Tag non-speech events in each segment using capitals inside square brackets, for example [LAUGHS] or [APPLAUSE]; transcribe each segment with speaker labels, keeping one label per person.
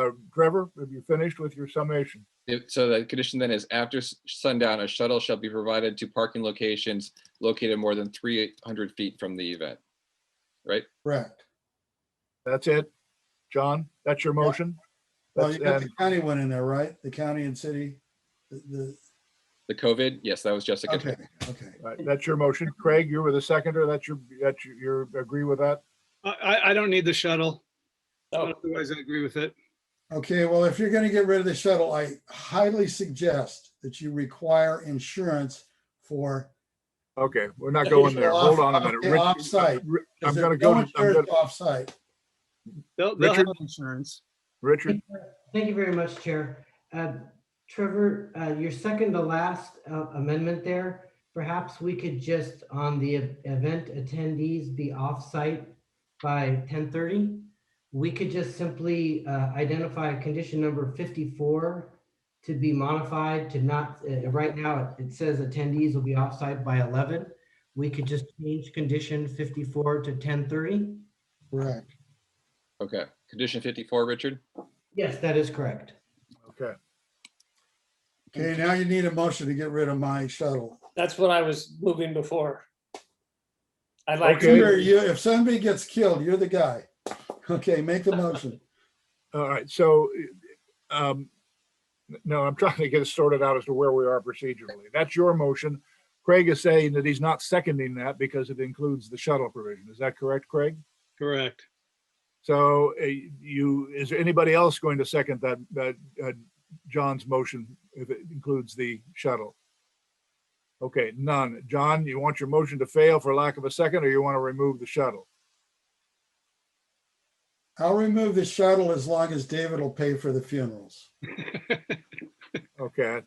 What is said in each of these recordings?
Speaker 1: Uh, Trevor, have you finished with your summation?
Speaker 2: If- So the condition then is after s- sundown, a shuttle shall be provided to parking locations located more than 300 feet from the event.
Speaker 3: Correct.
Speaker 1: That's it? John, that's your motion?
Speaker 3: Well,
Speaker 1: That's-
Speaker 3: you got the
Speaker 1: and-
Speaker 3: county one in there, right? The county and city? The-
Speaker 2: The
Speaker 3: The,
Speaker 2: COVID, yes, that was Jessica.
Speaker 3: okay, okay.
Speaker 1: all right, uh, That's your motion. Craig, you're with a seconder. That's your, that's your- your, agree with that?
Speaker 4: I, I, I don't need the shuttle.
Speaker 5: Oh.
Speaker 4: Otherwise, I agree with it.
Speaker 3: Okay, well, if you're going to get rid of the shuttle, I highly suggest that you require insurance for.
Speaker 1: Okay, we're not going there. Hold on a minute.
Speaker 3: Okay,
Speaker 1: Rich-
Speaker 3: Offsite.
Speaker 1: Ri-
Speaker 3: 'cause
Speaker 1: I'm
Speaker 3: there's
Speaker 1: gonna go
Speaker 3: no
Speaker 1: to- I'm
Speaker 3: insurance
Speaker 1: gonna-
Speaker 3: Offsite.
Speaker 4: They'll, they'll have
Speaker 1: Richard?
Speaker 4: insurance.
Speaker 1: Richard,
Speaker 6: Thank you very much, Chair. Uh, Trevor, uh, your second to last uh, amendment there, perhaps we could just, on the e- event attendees be off-site by 10:30? We could just simply uh, identify condition number 54 to be modified to not, uh, right now, it it says attendees will be off-site by 11. We could just change condition 54 to 10:30?
Speaker 3: Correct.
Speaker 2: Okay, condition 54, Richard?
Speaker 6: Yes, that is correct.
Speaker 1: okay.
Speaker 3: Okay, now you need a motion to get rid of my shuttle.
Speaker 5: That's what I was moving before. I'd like
Speaker 1: Okay.
Speaker 5: to,
Speaker 3: Peter, you, if somebody gets killed, you're the guy. Okay, make the motion.
Speaker 1: All right, so, um, no, I'm trying to get it sorted out as to where we are procedurally. That's your motion. Craig is saying that he's not seconding that because it includes the shuttle provision. Is that correct, Craig?
Speaker 4: Correct.
Speaker 1: So uh, you, is there anybody else going to second that, that, uh, John's motion if it includes the shuttle? Okay, none. John, you want your motion to fail for lack of a second, or you want to remove the shuttle?
Speaker 3: I'll remove the shuttle as long as David will pay for the funerals.
Speaker 1: Okay.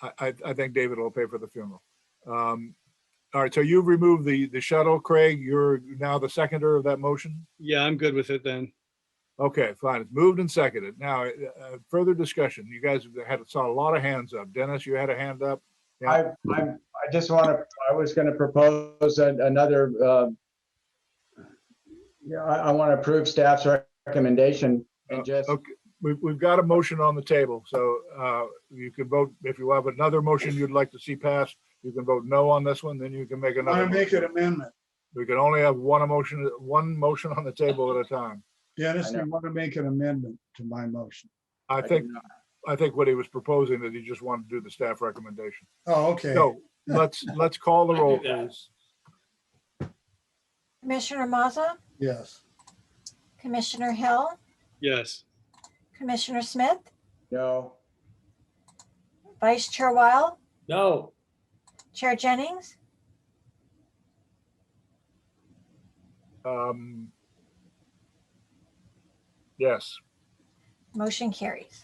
Speaker 1: I, I, I think David will pay for the funeral. Um, all right, so you've removed the, the shuttle, Craig. You're now the seconder of that motion?
Speaker 4: Yeah, I'm good with it then.
Speaker 1: Okay, fine. It's moved and seconded. Now, uh, further discussion. You guys had, saw a lot of hands up. Dennis, you had a hand up? Yeah.
Speaker 7: I, I'm, I just want to, I was going to propose an- another, uh, yeah, I, I want to approve staff's recommendation
Speaker 1: Uh,
Speaker 7: and just,
Speaker 1: okay. We've, we've got a motion on the table, so uh, you can vote, if you have another motion you'd like to see passed, you can vote no on this one, then you can make
Speaker 3: I want
Speaker 1: another.
Speaker 3: to make
Speaker 1: motion.
Speaker 3: an amendment.
Speaker 1: We can only have one emotion, one motion on the table at a time.
Speaker 3: Dennis,
Speaker 7: I
Speaker 3: we
Speaker 7: know.
Speaker 3: want to make an amendment to my motion.
Speaker 1: I
Speaker 7: I
Speaker 1: think,
Speaker 7: did not-
Speaker 1: I think what he was proposing that he just wanted to do the staff recommendation.
Speaker 3: Oh, okay.
Speaker 1: So let's, let's call the
Speaker 5: I do
Speaker 1: roll,
Speaker 5: that.
Speaker 1: please.
Speaker 8: Commissioner Maza,
Speaker 3: Yes.
Speaker 8: Commissioner Hill,
Speaker 4: Yes.
Speaker 8: Commissioner Smith,
Speaker 7: no,
Speaker 8: Vice Chair Wile,
Speaker 5: no,
Speaker 8: Chair Jennings,
Speaker 1: Um, Yes,
Speaker 8: motion carries.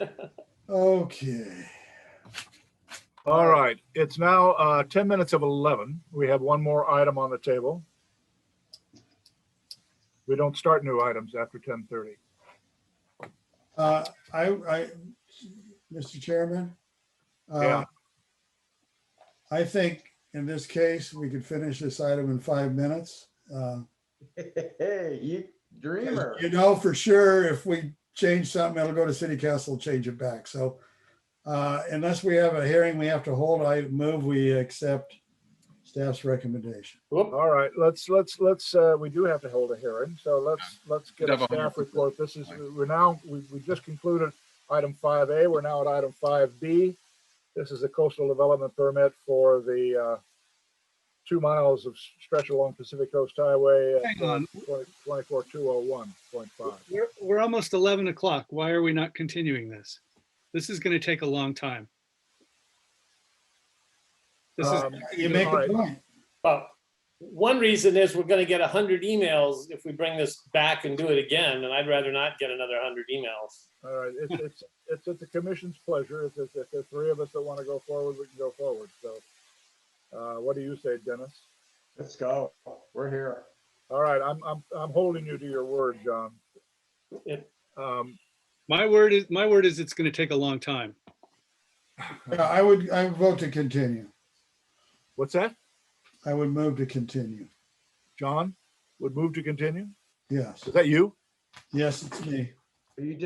Speaker 3: Okay.
Speaker 1: all right. It's now uh, 10 minutes of 11. We have one more item on the table. We don't start new items after 10:30.
Speaker 3: Uh, I, I, Mr. Chairman. uh,
Speaker 1: Yeah.
Speaker 3: I think in this case, we could finish this item in five minutes. Uh,
Speaker 7: [LAUGHS] hey, you dreamer.
Speaker 3: You know, for sure, if we change something, it'll go to city council, change it back. So uh, unless we have a hearing we have to hold, I move we accept staff's recommendation.
Speaker 5: whoop,
Speaker 1: All right, let's, let's, let's, uh, we do have to hold a hearing, so let's, let's get
Speaker 2: Have
Speaker 1: a
Speaker 2: a hundred
Speaker 1: staff
Speaker 2: percent.
Speaker 1: report. This is, we're now, we, we just concluded item five A, we're now at item five B. This is a coastal development permit for the, uh, two miles of stretch along Pacific Coast Highway. uh,
Speaker 4: Hang on.
Speaker 1: Twenty-four, two oh one point five.
Speaker 4: Um, We're, we're almost 11 o'clock. Why are we not continuing this? This is going to take a long time. This is,
Speaker 1: Um,
Speaker 3: You make
Speaker 1: all
Speaker 3: a
Speaker 1: right.
Speaker 3: point.
Speaker 5: well, one reason is we're gonna get a hundred emails if we bring this back and do it again, and I'd rather not get another hundred emails.
Speaker 1: All right, it's, it's, it's at the commission's pleasure. If, if, if the three of us that want to go forward, we can go forward, so. Uh, what do you say, Dennis?
Speaker 7: Let's go. We're here.
Speaker 1: All right, I'm, I'm, I'm holding you to your word, John.
Speaker 5: Yep.
Speaker 1: Um,
Speaker 4: my word is, my word is it's going to take a long time.
Speaker 3: Yeah, I would, I would vote to continue.
Speaker 1: what's that?
Speaker 3: I would move to continue.
Speaker 1: John would move to continue?
Speaker 3: Yes,
Speaker 1: Is that you?
Speaker 3: yes, it's me.
Speaker 7: You